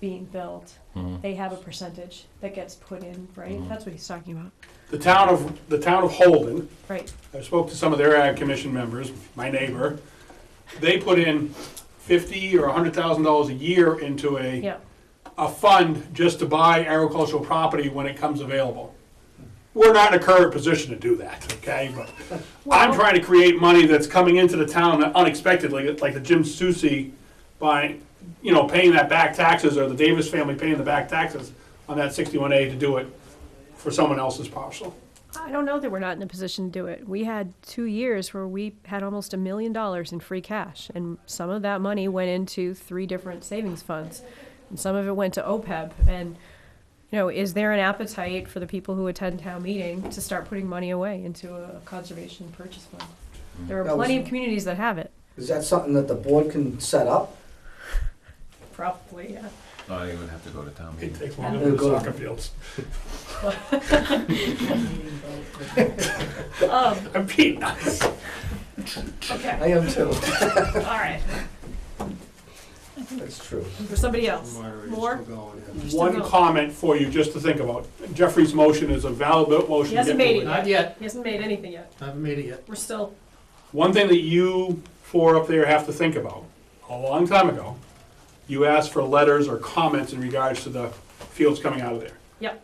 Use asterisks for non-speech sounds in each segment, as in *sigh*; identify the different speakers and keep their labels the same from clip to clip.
Speaker 1: being built,
Speaker 2: Mhm.
Speaker 1: they have a percentage that gets put in, right?
Speaker 2: Mhm.
Speaker 1: That's what he's talking about,
Speaker 3: The town of, the town of Holden,
Speaker 1: right?
Speaker 3: I spoke to some of their ag commission members, my neighbor. They put in fifty or hundred thousand dollars a year into a,
Speaker 1: Yeah,
Speaker 3: a fund just to buy agricultural property when it comes available. We're not in a current position to do that, okay? But I'm
Speaker 1: Well-
Speaker 3: trying to create money that's coming into the town unexpectedly, like the Jim Susi by, you know, paying that back taxes or the Davis family paying the back taxes on that sixty-one A to do it for someone else's parcel.
Speaker 1: I don't know that we're not in a position to do it. We had two years where we had almost a million dollars in free cash, and some of that money went into three different savings funds, and some of it went to OPEB. And you know, is there an appetite for the people who attend town meeting to start putting money away into a conservation purchase fund? There are
Speaker 4: That was-
Speaker 1: plenty of communities that have it.
Speaker 4: Is that something that the board can set up?
Speaker 1: Probably, yeah.
Speaker 2: Oh, I would have to go to town
Speaker 3: It
Speaker 2: meeting.
Speaker 3: takes longer than the soccer fields.
Speaker 1: Um, *laughs*
Speaker 3: I'm being nice.
Speaker 1: okay,
Speaker 4: I am too.
Speaker 1: all right.
Speaker 4: That's true.
Speaker 1: For somebody else. More?
Speaker 3: One comment for you, just to think about. Jeffrey's motion is a valid
Speaker 1: He
Speaker 3: motion. to
Speaker 1: hasn't
Speaker 3: get
Speaker 1: made it
Speaker 3: moving.
Speaker 1: yet.
Speaker 5: Not yet,
Speaker 1: He hasn't made anything yet.
Speaker 5: I haven't made it yet.
Speaker 1: We're still,
Speaker 3: One thing that you four up there have to think about, a long time ago, you asked for letters or comments in regards to the fields coming out of there.
Speaker 1: yep,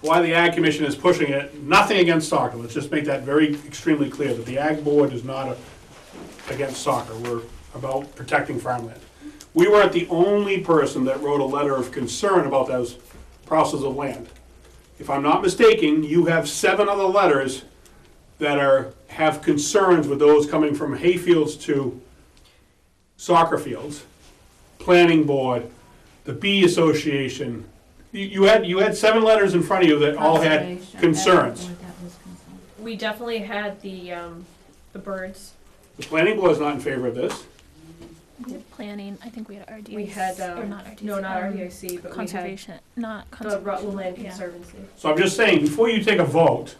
Speaker 3: Why the Ag Commission is pushing it, nothing against soccer, let's just make that very extremely clear, that the Ag Board is not a- against soccer, we're about protecting farmland. We weren't the only person that wrote a letter of concern about those parcels of land. If I'm not mistaken, you have seven other letters that are, have concerns with those coming from hayfields to soccer fields, planning board, the bee association. You, you had, you had seven letters in front of you that all had
Speaker 6: Conservation,
Speaker 3: concerns.
Speaker 6: everyone that was concerned.
Speaker 1: we definitely had the, um, the birds
Speaker 3: The planning board's not in favor of this.
Speaker 7: We had planning, I think we had RDC.
Speaker 1: We had,
Speaker 7: Or
Speaker 1: um,
Speaker 7: not RDC.
Speaker 1: no, not
Speaker 7: um,
Speaker 1: RDIC, but we had
Speaker 7: Conservation, not
Speaker 1: the
Speaker 7: conservation.
Speaker 1: Rutland Land
Speaker 7: yeah.
Speaker 1: Conservancy.
Speaker 3: So I'm just saying, before you take a vote,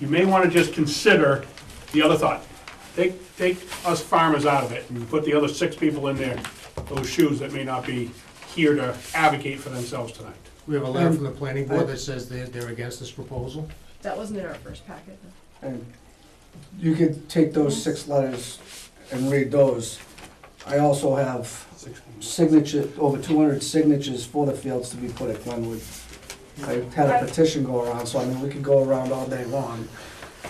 Speaker 3: you may want to just consider the other thought. Take, take us farmers out of it and put the other six people in there, those shoes that may not be here to advocate for themselves tonight.
Speaker 5: We have a letter from the planning board that says they're, they're against this proposal.
Speaker 1: That wasn't in our first packet.
Speaker 4: And you could take those six letters and read those. I also have signature, over two hundred signatures for the fields to be put at Glenwood. I had a petition go around, so I mean, we could go around all day long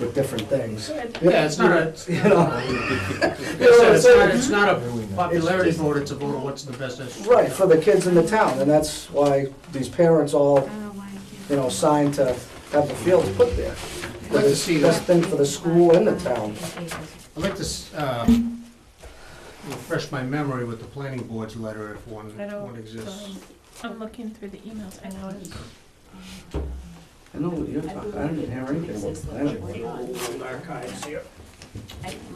Speaker 4: with different things.
Speaker 5: *laughs* Yeah, it's not
Speaker 4: *laughs*
Speaker 5: a,
Speaker 4: You know,
Speaker 5: it's not- it's not, it's not a popularity vote, it's a vote on what's in the best interest.
Speaker 4: Right, for the kids in the town, and that's why these parents all
Speaker 6: I don't know why you
Speaker 4: you know, signed to have the fields put there.
Speaker 5: I'd like to see
Speaker 4: Best
Speaker 5: that,
Speaker 4: thing for the school and the town.
Speaker 5: I'd like to, s- uh, refresh my memory with the planning board's letter if one,
Speaker 1: I don't,
Speaker 5: one exists.
Speaker 1: um,
Speaker 7: I'm looking through the emails, I know it.
Speaker 4: I know what you're talking, I didn't hear anything about the planning board.
Speaker 3: Archives here. I can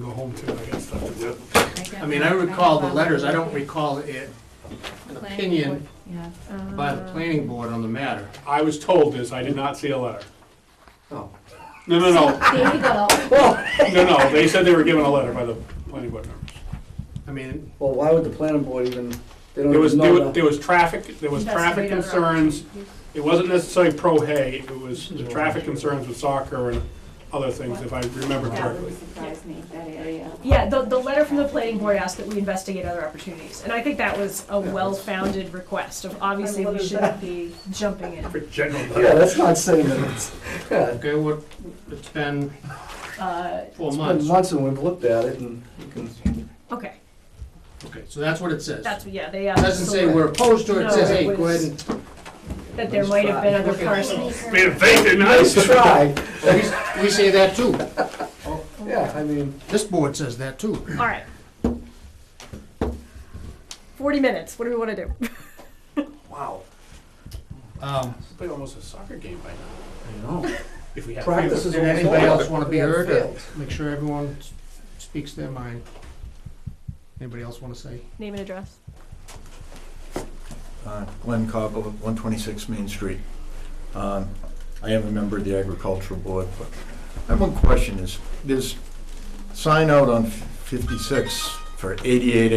Speaker 3: go home too, I got stuff to do.
Speaker 5: I mean, I recall the letters, I don't recall it, an opinion
Speaker 6: Yeah.
Speaker 1: Um,
Speaker 5: by
Speaker 1: Uh.
Speaker 5: the planning board on the matter.
Speaker 3: I was told this, I did not see a letter.
Speaker 4: Oh. *laughs*
Speaker 3: No, no, no,
Speaker 6: There you go.
Speaker 3: no, no, they said they were given a letter by the planning board members.
Speaker 5: I mean,
Speaker 4: Well, why would the planning board even, they don't
Speaker 3: There was,
Speaker 4: even
Speaker 3: there
Speaker 4: know
Speaker 3: was,
Speaker 4: that.
Speaker 3: there was traffic, there was traffic concerns, it wasn't necessarily pro hay, it was the traffic concerns with soccer and other things, if I remember
Speaker 6: That would
Speaker 3: correctly.
Speaker 6: surprise me, that area.
Speaker 1: Yeah, the, the letter from the planning board asked that we investigate other opportunities, and I think that was a well-founded request of obviously we shouldn't be jumping in.
Speaker 3: For general.
Speaker 4: Yeah, that's not saying that it's, yeah,
Speaker 5: okay, what, it's been
Speaker 1: Uh,
Speaker 5: four
Speaker 4: it's been
Speaker 5: months.
Speaker 4: months and we've looked at it and we can,
Speaker 1: okay,
Speaker 5: Okay, so that's what it says.
Speaker 1: that's,
Speaker 5: It
Speaker 1: yeah, they asked.
Speaker 5: Doesn't say we're opposed to it, it says,
Speaker 1: No, it
Speaker 5: hey, go ahead
Speaker 1: was-
Speaker 5: and
Speaker 1: That there might have been other
Speaker 5: Look at-
Speaker 1: parcels.
Speaker 3: Man, thank you,
Speaker 4: *laughs* nice
Speaker 3: nice.
Speaker 4: try,
Speaker 5: We- We say that too.
Speaker 4: yeah, I mean,
Speaker 5: This board says that too.
Speaker 1: All right. Forty minutes, what do we wanna do?
Speaker 4: wow,
Speaker 5: Um,
Speaker 3: Played almost a soccer game by now,
Speaker 4: I know.
Speaker 3: if we had.
Speaker 4: Practice is
Speaker 5: Did
Speaker 4: almost
Speaker 5: anybody
Speaker 4: over.
Speaker 5: else want to be
Speaker 4: We have
Speaker 5: heard? or
Speaker 4: failed.
Speaker 5: Make sure everyone s- speaks their mind. Anybody else want to say?
Speaker 1: Name and address.
Speaker 8: Uh, Glenn Cobble, 126 Main Street. Um, I am a member of the agricultural board, but I have one question is, there's sign out on 56 for 88